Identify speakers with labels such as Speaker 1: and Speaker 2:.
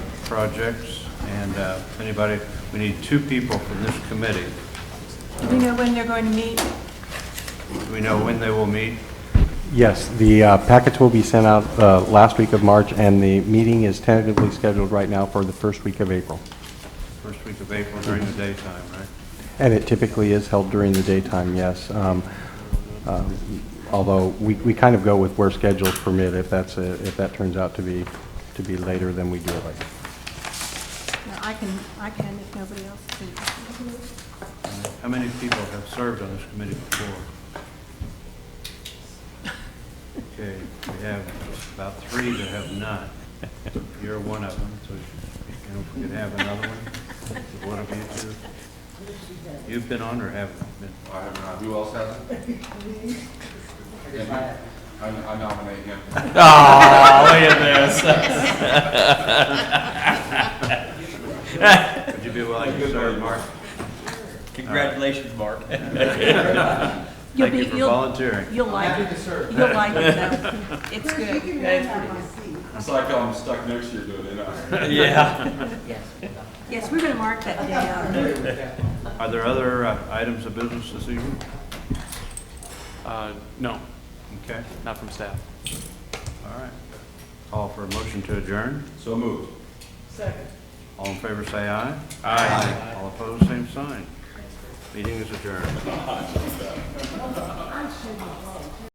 Speaker 1: projects, and uh, anybody, we need two people from this committee.
Speaker 2: Do we know when they're going to meet?
Speaker 1: Do we know when they will meet?
Speaker 3: Yes, the uh, packets will be sent out uh, last week of March, and the meeting is tentatively scheduled right now for the first week of April.
Speaker 1: First week of April during the daytime, right?
Speaker 3: And it typically is held during the daytime, yes. Um, um, Although, we we kind of go with where schedules permit, if that's, a- if that turns out to be, to be later, then we do it later.
Speaker 2: No, I can, I can if nobody else can.
Speaker 1: How many people have served on this committee before? Okay, we have about three that have not. You're one of them, so you know, if we could have another one, if one of you two. You've been on or haven't been?
Speaker 4: I have not. Who else has it? I I nominate him.
Speaker 1: Would you be willing to serve, Mark?
Speaker 5: Congratulations, Mark.
Speaker 2: You'll
Speaker 1: Thank you
Speaker 2: be-
Speaker 1: for
Speaker 2: you'll-
Speaker 1: volunteering.
Speaker 2: You'll like it. You'll like it, though. It's good.
Speaker 4: It's like I'm stuck next to you doing it. I-
Speaker 5: Yeah.
Speaker 2: Yes, we're going to mark that day uh, out.
Speaker 1: Are there other uh, items of business this evening?
Speaker 6: Uh, No,
Speaker 1: Okay,
Speaker 6: not from staff.
Speaker 1: all right. Call for a motion to adjourn.
Speaker 4: So moved.
Speaker 1: All in favor, say aye. Aye. All opposed, same sign. Meeting is adjourned.